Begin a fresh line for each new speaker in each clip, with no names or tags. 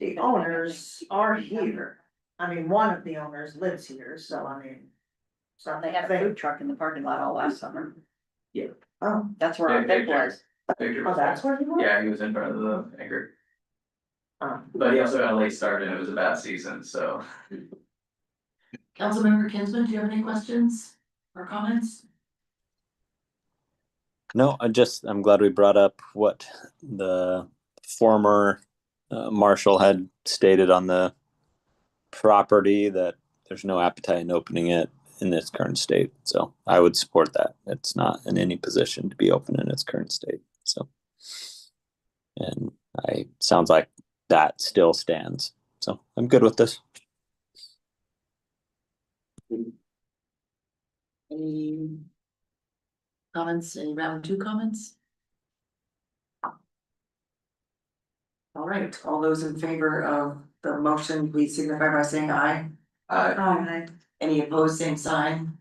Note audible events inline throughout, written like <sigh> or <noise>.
the owners are here. I mean, one of the owners lives here, so I mean. So
They had a food truck in the parking lot all last summer.
Oh,
That's where our
Yeah,
big was.
Victor
oh,
was
that's where he
there.
was?
Yeah, he was in front of the anchor,
Oh.
but he also got a late start and it was a bad season, so.
Councilmember Kinsman, do you have any questions or comments?
No, I just, I'm glad we brought up what the former uh, marshal had stated on the property that there's no appetite in opening it in its current state. So I would support that. It's not in any position to be open in its current state. So, and I, sounds like that still stands. So I'm good with this.
Any comments, any round two comments? All right, all those in favor of the motion, please signify by saying aye.
Uh,
Aye. Any opposed, same sign?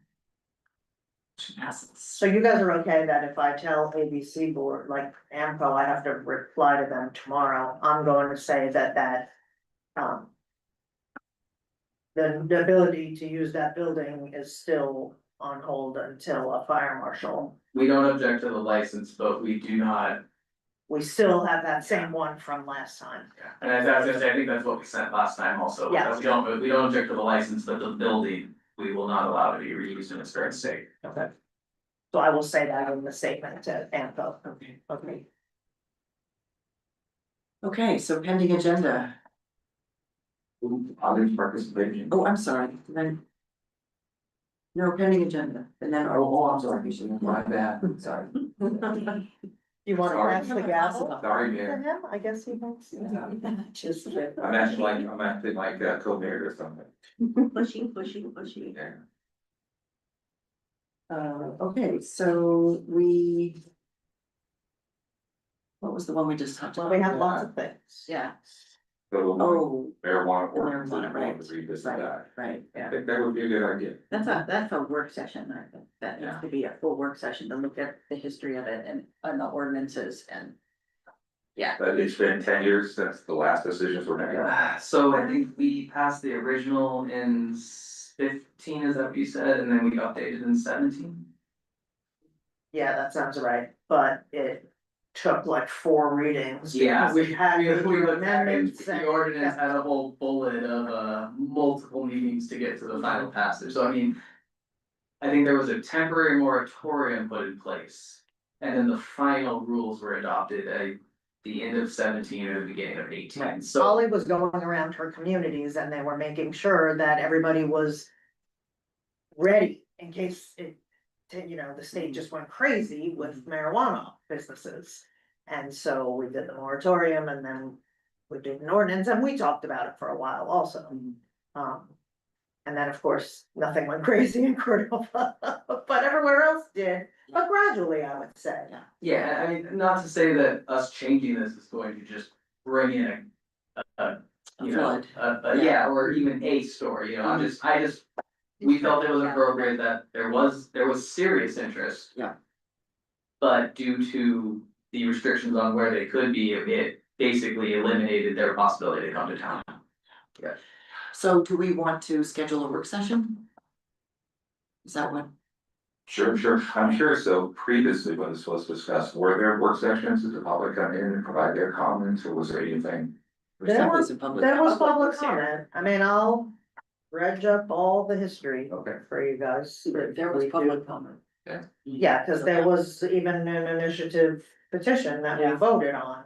Motion passes.
So you guys are okay that if I tell ABC board, like AMCO, I have to reply to them tomorrow, I'm going to say that that. Um. The the ability to use that building is still on hold until a fire marshal.
we don't object to the license, but we do not,
We still have that same one from last time.
and as I was gonna say, I think that's what we sent last time also,
Yeah.
we don't, we don't object to the license, but the building. We will not allow to be reused in its current state.
Okay. So I will say that in the statement to AMCO.
Okay,
Okay.
okay, so pending agenda.
Others participation.
Oh, I'm sorry, then. No, pending agenda, and then.
Oh, I'm sorry,
<laughs>
my bad, sorry.
You wanna
Sorry.
pass the gas?
Oh,
Sorry,
To
Mayor.
him, I guess he wants. Just.
I'm acting like, I'm acting like uh, co-mayor or something.
Pushing, pushing, pushing.
Yeah.
Uh, okay, so we. What was the one we just talked
Well,
about?
we have lots of things.
Yeah,
Oh,
marijuana or
marijuana, right,
revisit
right,
that.
right,
I think that would be a good idea.
that's a, that's a work session, I think, that needs
Yeah.
to be a full work session to look at the history of it and, and the ordinances and. Yeah,
But it's been ten years since the last decisions were made.
Yeah, So I think we passed the original in s- fifteen, is that what you said, and then we updated in seventeen?
Yeah, that sounds right, but it took like four readings. because
We
had
had, we
to do
looked at it,
amendments
the
and-
ordinance had a whole bullet of uh multiple meetings to get to the final passage, so I mean. I think there was a temporary moratorium put in place, and then the final rules were adopted at the end of seventeen or the beginning of eighteen, so.
Holly was going around her communities and they were making sure that everybody was ready in case it, you know, the state just went crazy with marijuana businesses. And so we did the moratorium and then we did an ordinance and we talked about it for a while also. Um, and then, of course, nothing went <laughs> crazy in Cordova, but everywhere else did, but gradually, I would say.
Yeah, I mean, not to say that us changing this is going to just bring in a. A, a, you know,
Flood.
a, a, yeah, or even a story, you know, I'm just, I just. We felt it was appropriate that there was, there was serious interest.
Yeah.
But due to the restrictions on where they could be, it- it basically eliminated their possibility to come to town.
so do we want to schedule a work session? Is that what,
Sure, sure, I'm sure, so previously when this was discussed, were there work sessions, did the public come in and provide their comments, or was there anything?
or
There
that
was-
was in public?
There was public comment, I mean, I'll dredge up all the history
Okay,
for you guys.
There- There was
We do.
public comment.
Yeah, cause there was even an initiative petition that we
Yeah.
voted on.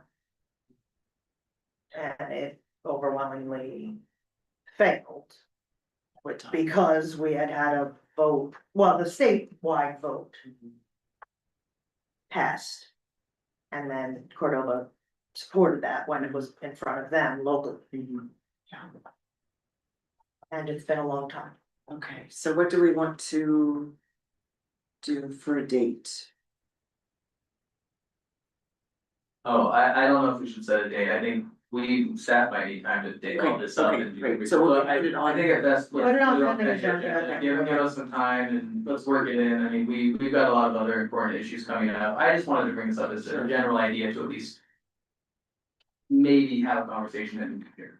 And it overwhelmingly failed.
What time?
because we had had a vote, well, the statewide vote
Mm-hmm.
passed. And then Cordova supported that when it was in front of them locally,
Mm-hmm. Yeah.
and it's been a long time.
Okay, so what do we want to do for a date?
Oh, I, I don't know if we should set a date, I think we staff might need time to dig all this up
Okay,
and. do-
great, so we'll
But I-
put it on-
I think at best, let's
Put it on
put it on the
pending agenda,
agenda,
okay.
give, give us some time and let's work it in, I mean, we, we've got a lot of other important issues coming up, I just wanted to bring this up as a
Sure.
general idea to at least. Maybe have a conversation in here,